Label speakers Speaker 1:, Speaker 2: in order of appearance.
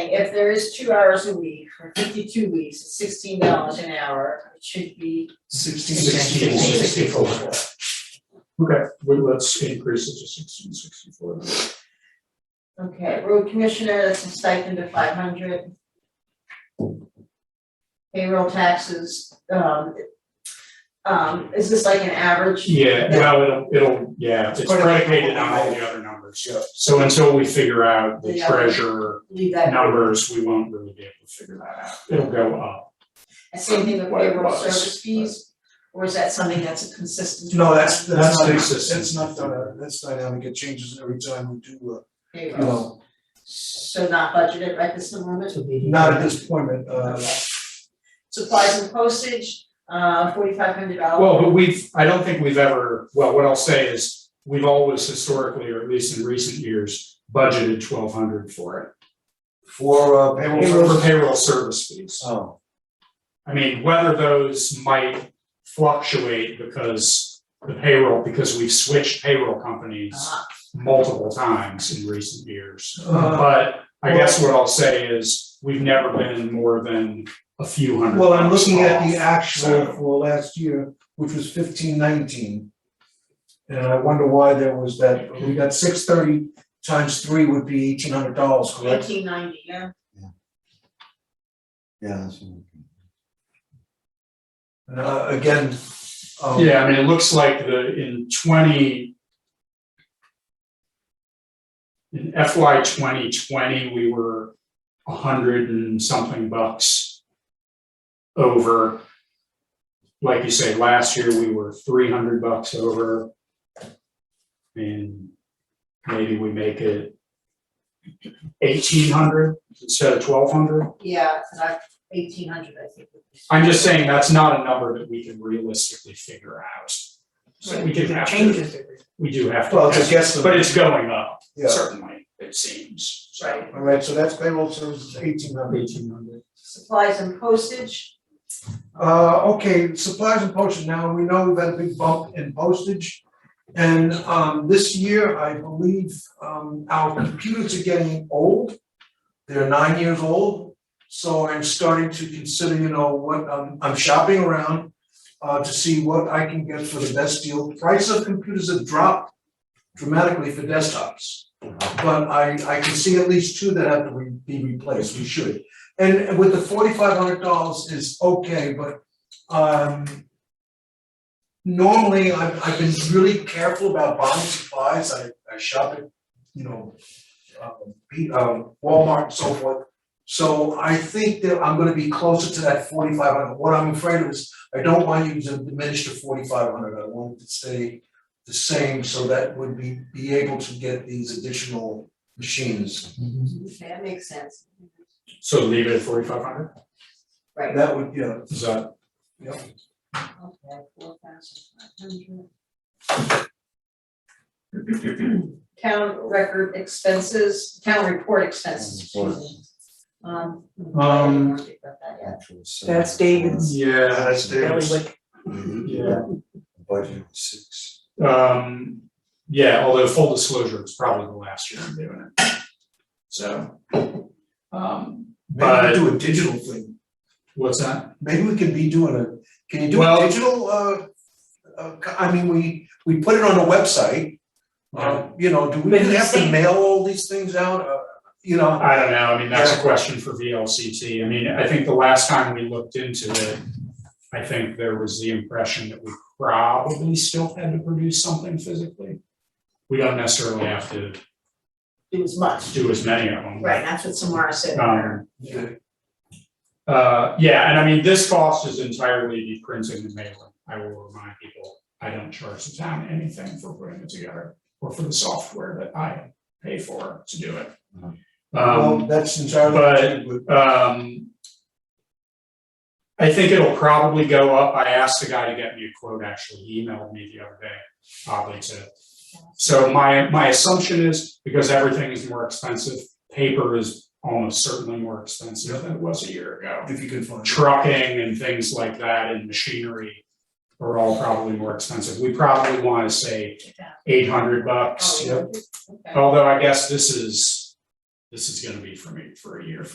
Speaker 1: saying if there is two hours a week for fifty-two weeks, it's sixteen dollars an hour, it should be.
Speaker 2: Sixteen
Speaker 1: Sixteen
Speaker 2: sixty-four.
Speaker 1: sixty-four.
Speaker 2: Okay, well, let's increase it to sixteen sixty-four.
Speaker 1: Okay, road commissioner, that's a stipend of five hundred. Payroll taxes, um. Um, is this like an average?
Speaker 2: Yeah, well, it'll, it'll, yeah, it's
Speaker 1: Sort of like-
Speaker 2: predicated on all the other numbers, yeah. So until we figure out the
Speaker 1: Yeah.
Speaker 2: treasurer
Speaker 1: Leave that,
Speaker 2: numbers, we won't really be able to figure that out. It'll go up.
Speaker 1: and same thing with
Speaker 3: What it
Speaker 1: payroll
Speaker 3: was,
Speaker 1: service fees, or is that something that's a consistent?
Speaker 4: No, that's, that's
Speaker 2: That's
Speaker 4: not,
Speaker 2: consistent.
Speaker 4: that's not, done. that's dynamic, it changes every time we do, uh, you
Speaker 1: Payroll,
Speaker 4: know,
Speaker 1: so not budgeted right this moment?
Speaker 4: not at this point, but, uh,
Speaker 1: Supplies and postage, uh, forty-five hundred dollars.
Speaker 2: Well, but we've, I don't think we've ever, well, what I'll say is, we've always historically, or at least in recent years, budgeted twelve hundred for it.
Speaker 4: for uh, payroll
Speaker 2: For
Speaker 4: service.
Speaker 2: payroll service fees.
Speaker 4: Oh,
Speaker 2: I mean, whether those might fluctuate because the payroll, because we've switched payroll companies
Speaker 1: Uh, Uh-huh.
Speaker 2: multiple times in recent years.
Speaker 4: uh,
Speaker 2: But I guess what I'll say is, we've never been more than a few hundred.
Speaker 4: well, I'm looking at the
Speaker 2: bucks off.
Speaker 4: actual
Speaker 2: So-
Speaker 4: for last year, which was fifteen nineteen. And I wonder why there was that, we got six thirty times three would be eighteen hundred dollars, correct?
Speaker 1: Eighteen ninety, yeah,
Speaker 3: Yeah, that's.
Speaker 4: Uh, again, um,
Speaker 2: Yeah, I mean, it looks like the, in twenty. In FY twenty twenty, we were a hundred and something bucks. Over. Like you say, last year we were three hundred bucks over. And maybe we make it. Eighteen hundred instead of twelve hundred.
Speaker 1: yeah, cause I, eighteen hundred, I think. would be-
Speaker 2: I'm just saying that's not a number that we can realistically figure out. So we do have to. Changes. We do have to.
Speaker 4: well, it's a guess.
Speaker 2: But it's going up,
Speaker 4: Yeah.
Speaker 2: certainly, it seems, so.
Speaker 4: All right, so that's payroll services, eighteen hundred.
Speaker 2: Eighteen hundred.
Speaker 1: Supplies and postage,
Speaker 4: Uh, okay, supplies and postage, now we know we've had a big bump in postage. And, um, this year, I believe, um, our computers are getting old. They're nine years old, so I'm starting to consider, you know, what, um, I'm shopping around. Uh, to see what I can get for the best deal, price of computers have dropped dramatically for desktops.
Speaker 2: Uh-huh.
Speaker 4: But I, I can see at least two that have to re- be replaced, we should. And with the forty-five hundred dollars is okay, but um. Normally, I've I've been really careful about buying supplies, I I shop at, you know, um, P- um, Walmart and so forth. So I think that I'm gonna be closer to that forty-five hundred, what I'm afraid of is, I don't want you to diminish to forty-five hundred, I want it to stay the same, so that would be be able to get these additional machines.
Speaker 1: okay, that makes sense,
Speaker 2: So leave it at forty-five hundred,
Speaker 1: right,
Speaker 4: That would, yeah,
Speaker 2: is that?
Speaker 4: yeah.
Speaker 1: okay, four thousand five hundred. Town record expenses, town report expenses, excuse me. Um. I
Speaker 2: Um,
Speaker 1: didn't think about that yet.
Speaker 5: That's David's.
Speaker 2: Yeah,
Speaker 4: that's
Speaker 5: Really
Speaker 4: David's.
Speaker 5: wicked.
Speaker 4: Mm-hmm.
Speaker 2: Yeah.
Speaker 3: Budget was six.
Speaker 2: um, yeah, although full disclosure, it's probably the last year I'm doing it. So, um,
Speaker 4: Maybe we do a digital thing,
Speaker 2: what's that?
Speaker 4: maybe we can be doing a, can you do
Speaker 2: Well-
Speaker 4: a digital, uh, uh, co- I mean, we, we put it on a website. Uh, you know, do we
Speaker 5: But he's
Speaker 4: have to
Speaker 5: saying-
Speaker 4: mail all these things out, uh, you know?
Speaker 2: I don't know, I mean, that's a
Speaker 4: Yeah.
Speaker 2: question for VLCT, I mean, I think the last time we looked into it, I think there was the impression that we probably still had to produce something physically. We don't necessarily have to
Speaker 1: It was much,
Speaker 2: do as many of them.
Speaker 1: right, that's what Samara said.
Speaker 2: Um,
Speaker 4: Yeah.
Speaker 2: uh, yeah, and I mean, this cost is entirely the printing and mailing, I will remind people, I don't charge the town anything for putting it together, or for the software that I pay for to do it.
Speaker 3: Mhm.
Speaker 4: Well,
Speaker 2: Um,
Speaker 4: that's entirely.
Speaker 2: but-
Speaker 4: true,
Speaker 2: um. I think it'll probably go up. I asked the guy to get me a quote, actually. He emailed me the other day, probably to. So my, my assumption is because everything is more expensive, paper is almost certainly more expensive than it was a year ago.
Speaker 4: If you can find. it.
Speaker 2: Trucking and things like that and machinery are all probably more expensive. We probably want to say eight hundred bucks.
Speaker 1: Oh, okay.
Speaker 2: Although I guess this is, this is gonna be for me for a year,